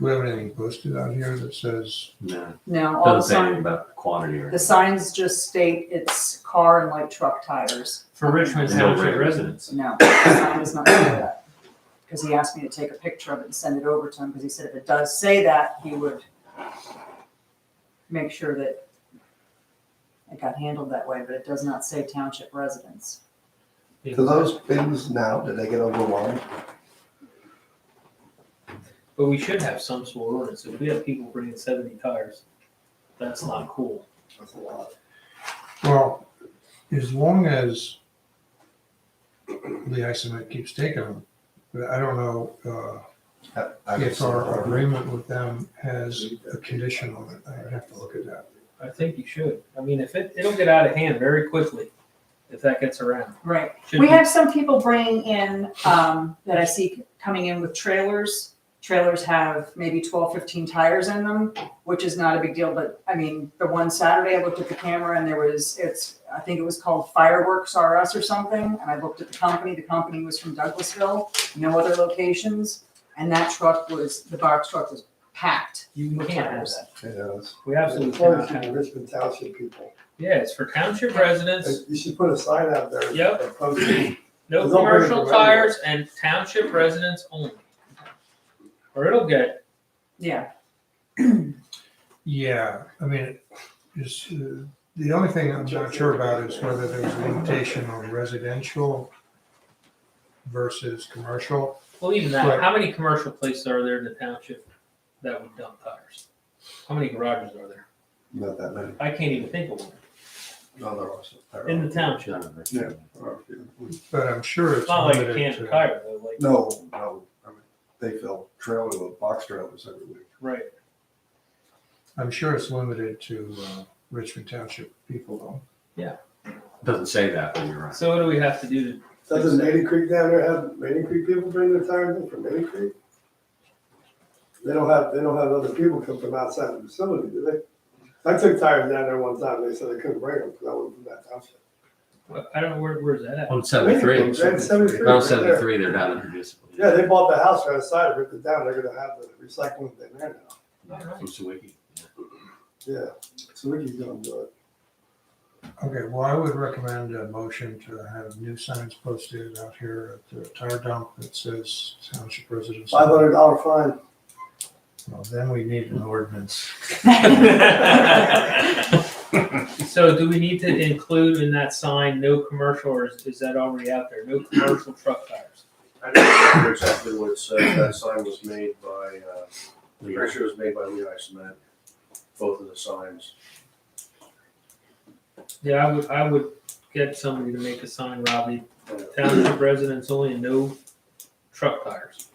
we have anything posted out here that says, No, No, all the doesn't say anything signs, about quantity or. the signs just state it's car and light truck tires. For Richmond No Township rate. Oh, residents. No, the sign does not say that. Because he asked me to take a picture of it and send it over to him, because he said if it does say that, he would make sure that it got handled that way, but it does not say township residents. Do those bins now, do they get overwhelmed? But we should have some sort of ordinance. If we have people bringing seventy tires, that's not cool. That's a lot. well, as long as the isomet keeps taking them, but I don't know, uh, I- I don't if see our it. agreement with them has a condition on it, I'd have to look at that. I think you should. I mean, if it, it'll get out of hand very quickly if that gets around. Right, Should We be- have some people bringing in, um, that I see coming in with trailers. Trailers have maybe 12, 15 tires in them, which is not a big deal, but I mean, the one Saturday I looked at the camera and there was, it's, I think it was called Fireworks R Us or something, and I looked at the company, the company was from Douglasville, no other locations, and that truck was, the box truck was packed. You can't have that. Yeah, it's- We It's absolutely for cannot the have. Richmond Township people. Yeah, it's for township residents, You should put a sign out there. Yep. Opposing. no Don't bring it commercial around. tires and township residents only. Or it'll get, Yeah, Yeah, I mean, is, uh, the only thing I'm not sure about is whether there's a limitation on residential versus commercial. well, even that, Right. how many commercial places are there in the township that would dump tires? How many garages are there? Not that many. I can't even think of one. No, there are some. there In are- the township. Yeah. there are a few. But I'm sure It's it's not like a limited can of to- tire though, like, No, no, I mean, they fill trailer with box trailers every week. right. I'm sure it's limited to uh, Richmond Township people though. Doesn't say that, but you're right. So what do we have to do to? Doesn't Maiden Creek down there have, Maiden Creek people bring their tires in from Maiden Creek? They don't have, they don't have other people come from outside the facility, do they? I took tires down there one time, they said they couldn't bring them because I wasn't from that township. Well, I don't know where, where's that at? On seventy-three, Maiden Creek, right, Seventy-three. on right there. seventy-three, they're not introducible. Yeah, they bought the house right outside, ripped it down, they're gonna have the recycling thing there now. From Sawiki. Yeah, so Ricky's gonna do it. Okay, well, I would recommend a motion to have new signs posted out here at the tire dump that says township residents. Five hundred dollar fine. Well, Then we need an ordinance. So do we need to include in that sign, no commercial, or is, is that already out there? No commercial truck tires? I don't remember exactly what it said. That sign was made by, uh, the picture was made by Lehigh Cement, both of the signs. Yeah, I would, I would get somebody to make a sign, Robbie, township residents only, and no truck tires.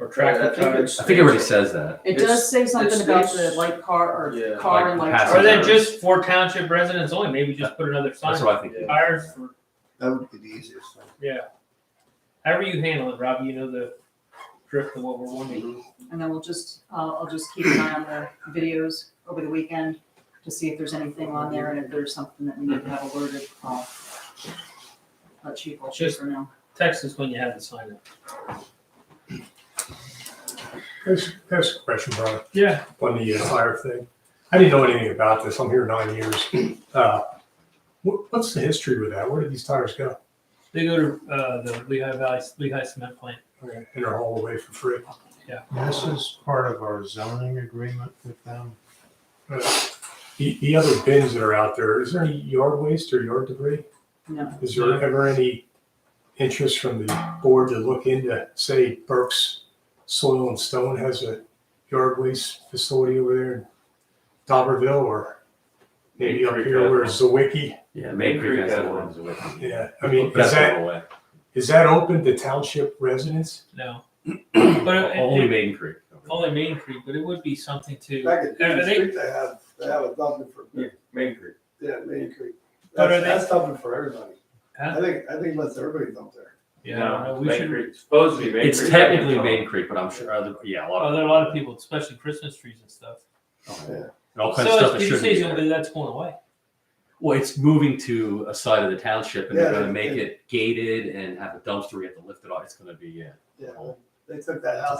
Or Yeah, tractor I think tires. it's- I think it already says that. it It's- does say something it's- about the it's- light car Yeah, or car and like light. passenger. Or truck. then just for township residents only, maybe just put another sign. That's what I think. Tires for, That would be the easiest thing. yeah. However you handle it, Robbie, you know the drift of what we're wanting. And then we'll just, I'll, I'll just keep an eye on the videos over the weekend to see if there's anything on there and if there's something that we need to have alerted. I'll Let Chief, I'll Just- for now. Text us when you have the sign up. That's, that's a question, Brian, Yeah. on the uh, fire thing. I didn't know anything about this. I'm here nine years. Uh, what, what's the history with that? Where did these tires go? They go to uh, the Lehigh Valley Lehigh Cement Plant. Okay, And they're hauled away for free. This is part of our zoning agreement with them. Uh, The, the other bins that are out there, is there any yard waste or yard debris? No. Is there ever any interest from the board to look into, say, Burke's Soil and Stone has a yard waste facility over there in Dobberville or maybe up here where Zawicki? Yeah, Main Creek has Creek one. Sawiki. Yeah, I mean, That's is that, one away. Is that open to township residents? No. but it, it- Only Maiden Creek. only Main Creek, but it would be something to. Back at Are Main they- Creek, they have, they have a dumping for, Main Creek. yeah, Main Creek. But are That's, that's dumping for everybody. I Huh? think, I think let's everybody dump there. Yeah, I don't know, we Main should. Creek. Supposedly Main Creek. It's technically Main Creek, but I'm sure other, yeah, a lot Oh, of. there are a lot of people, especially Christmas trees and stuff. Oh, Yeah. yeah. And all kinds of So stuff that it's, did you shouldn't say be it's there. gonna be- that's going away? Well, it's moving to a side of the township and they're Yeah, gonna make yeah. it gated and have a dumpster. We have to lift it off. It's gonna be, yeah. Yeah, they took that house